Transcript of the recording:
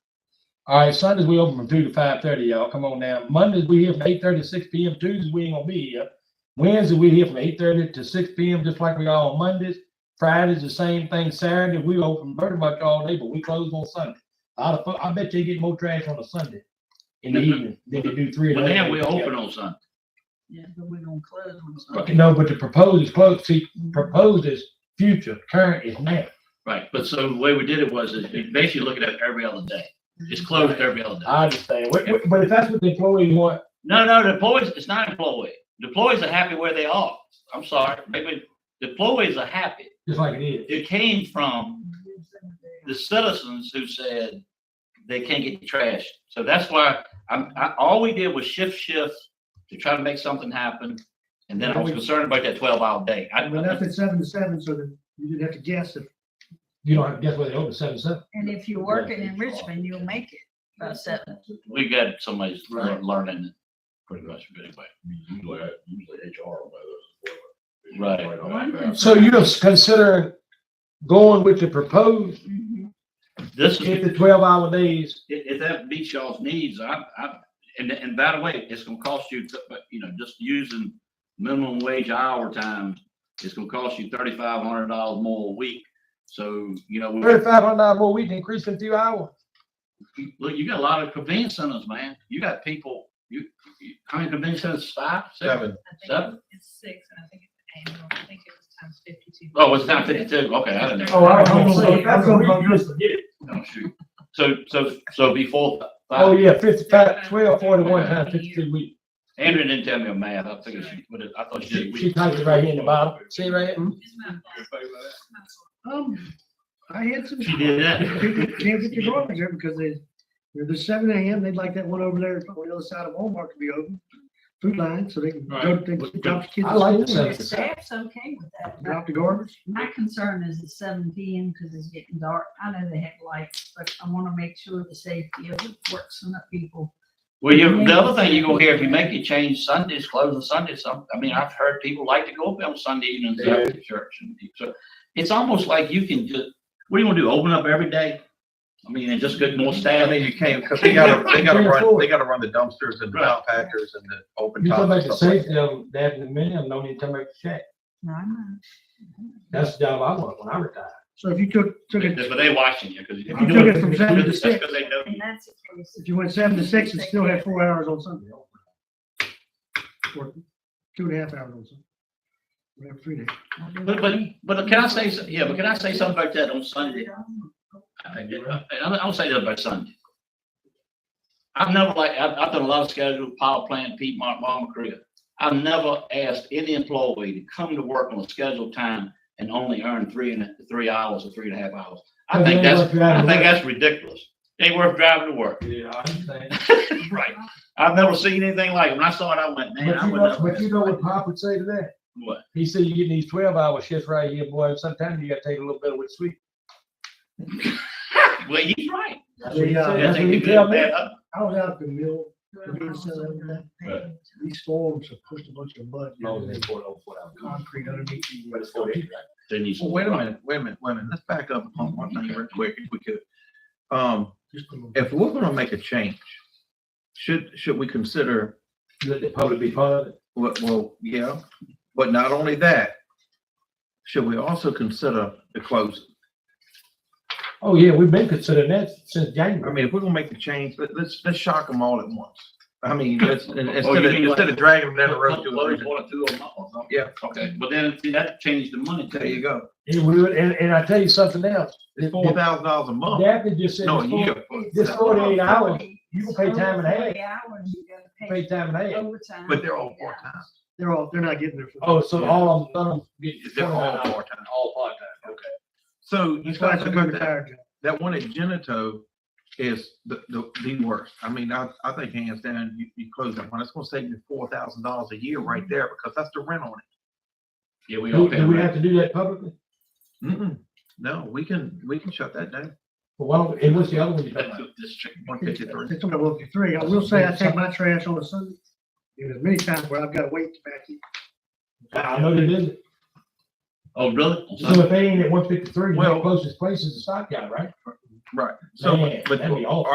All right, Sundays we open from two to five thirty, y'all. Come on now. Mondays we here from eight thirty to six P M. Tuesdays we ain't gonna be here. Wednesday we here from eight thirty to six P M. Just like we are on Mondays. Fridays the same thing. Saturday we open pretty much all day, but we close on Sunday. I, I bet you get more trash on a Sunday in the evening than you do three. of Well, the then other we days. open on Sunday. Yeah, but we're gonna close on Okay, Sunday. No, but the proposed is close. See, proposed is future, current is now. Right, but so the way we did it was, is you basically looking at every other day. It's closed every other day. I understand. Wh- wh- But if that's what the employee want, No, no, the employees, it's not employee. The Employees are happy where they are. I'm sorry, maybe the employees are happy. just like it is. It came from the citizens who said they can't get the trash. So that's why I'm, I, all we did was shift shifts to try to make something happen. And then I was concerned about that twelve hour day. I, We left at seven to seven, so that you didn't have to guess if You don't have to guess whether they open seven, seven. And if you're working in Richmond, you'll make it by seven. we got somebody's lear- Right. learning it pretty much, but anyway. Right. So you're considering going with the proposed, Mhm. This is. if the twelve hour days, If, if that meets y'all's needs, I, I, and, and by the way, it's gonna cost you, but, you know, just using minimum wage hour times, it's gonna cost you thirty-five hundred dollars more a week. So, you know, we- thirty-five hundred dollars more a week, increase in a few hours. look, you got a lot of convenience centers, man. You got people, you, you- how many convenience centers, five, six? I think Seven? It's six, and I think it's annual, I think it was times fifty-two. Oh, it's down fifty-two, okay, I didn't know. Oh, I don't know. That's gonna be- Oh, shoot. So, so, so before, Oh, yeah, fifty-five, twelve, forty-one times fifty-two weeks. Andrew didn't tell me a math, I figured she, what it- I thought she She did. she typed it right here in the bottom. See right here? It's my fault. It's my fault. Oh, Um, I had some. She did that. People Can't get their garbage there because they, they're the seven AM, they'd like that one over there on the other side of Walmart to be open. Food line, so they can go, Right. they can drop the kids. I like off, the The seven to seven. staff's okay with that. My- Drop the garbage. My concern is it's seven P M because it's getting dark. I know they have lights, but I want to make sure the safety of the works and the people. Well, you, the other thing you're gonna hear, if you make it change Sundays, closing Sundays, some, I mean, I've heard people like to go up on Sunday evenings after church and so. It's almost like you can just, what do you wanna do, open up every day? I mean, and just get more I staff. mean, you can't, because they gotta, they gotta run, they gotta run the dumpsters and the Right. backpackers and the open You talk top about and the stuff like safety of that in a minute, no need to make a check. No, I know. That's the job I want when I retire. So if you took, took it, But they watching you, cause if you You do took it, it from seven to that's six. 'cause they know And you. that's the case. if you went seven to six, you'd still have four hours on Sunday. Or two and a half hours on Sunday. Whatever, three days. But, but, but can I say, so- yeah, but can I say something about that on Sunday? I, I, I'll say that by Sunday. I've never like, I've, I've done a lot of scheduled power plant, Piedmont, Mama Creek. I've never asked any employee to come to work on a scheduled time and only earn three and, three hours or three and a half hours. I think that's, I think that's ridiculous. Ain't worth driving to work. Yeah, I understand. Right. I've never seen anything like it. When I saw it, I went, man, But I you would know, never. but you know what Pop would say to that? What? He said, you're getting these twelve hour shifts right here, boy, sometimes you gotta take a little bit of what's sweet. Well, he's right. That's what he Yeah, said. That's That's a what he good tell me. bad up. I was out at the mill, these storms have pushed a bunch of mud, you know, and concrete underneath. But it's gonna be right. Then he's. that. Well, wait a minute, wait a minute, wait a minute. Let's back up on one thing real quick if we could. Um, Just put a little- if we're gonna make a change, should, should we consider, Let the public be part of it. well, well, yeah, but not only that, should we also consider the closing? Oh, yeah, we've been considering that since I January. mean, if we're gonna make the change, let, let's, let's shock them all at once. I mean, let's, Oh, you mean instead of, like- instead of dragging them down the road. to Close a- one or two of them up or something. Yeah, Okay, but then see, that changed the money. there you go. And we, would- and, and I tell you something else. It's four thousand dollars a month. Daphne just said, No, a it's four- year. This forty-eight hours, you can pay time and a half. Hours, you gotta pay pay time and a half. overtime. But they're all part-time. They're all, they're not getting their. full- Oh, so all of them, none of them get They're all 29 hours. part-time. All part-time, okay. So you That's why I guys took agree my with that? retired job. That one at Genito is the, the, the worst. I mean, I, I think hands down, you, you close that one. It's gonna save you four thousand dollars a year right there because that's the rent on it. Yeah, we all Do, pay. do we rent. have to do that publicly? Mm-mm. No, we can, we can shut that down. Well, why don't, and what's the other one you're talking That's about? what this chick- One It's fifty-three. it's only one fifty-three. I will say I take my trash on a Sunday. There's many times where I've got to wait to back in. I know they did, Oh, really? so if they ain't at one fifty-three, the Well- closest place is the stockyard, right? Right. So, Man, but that'd be awful.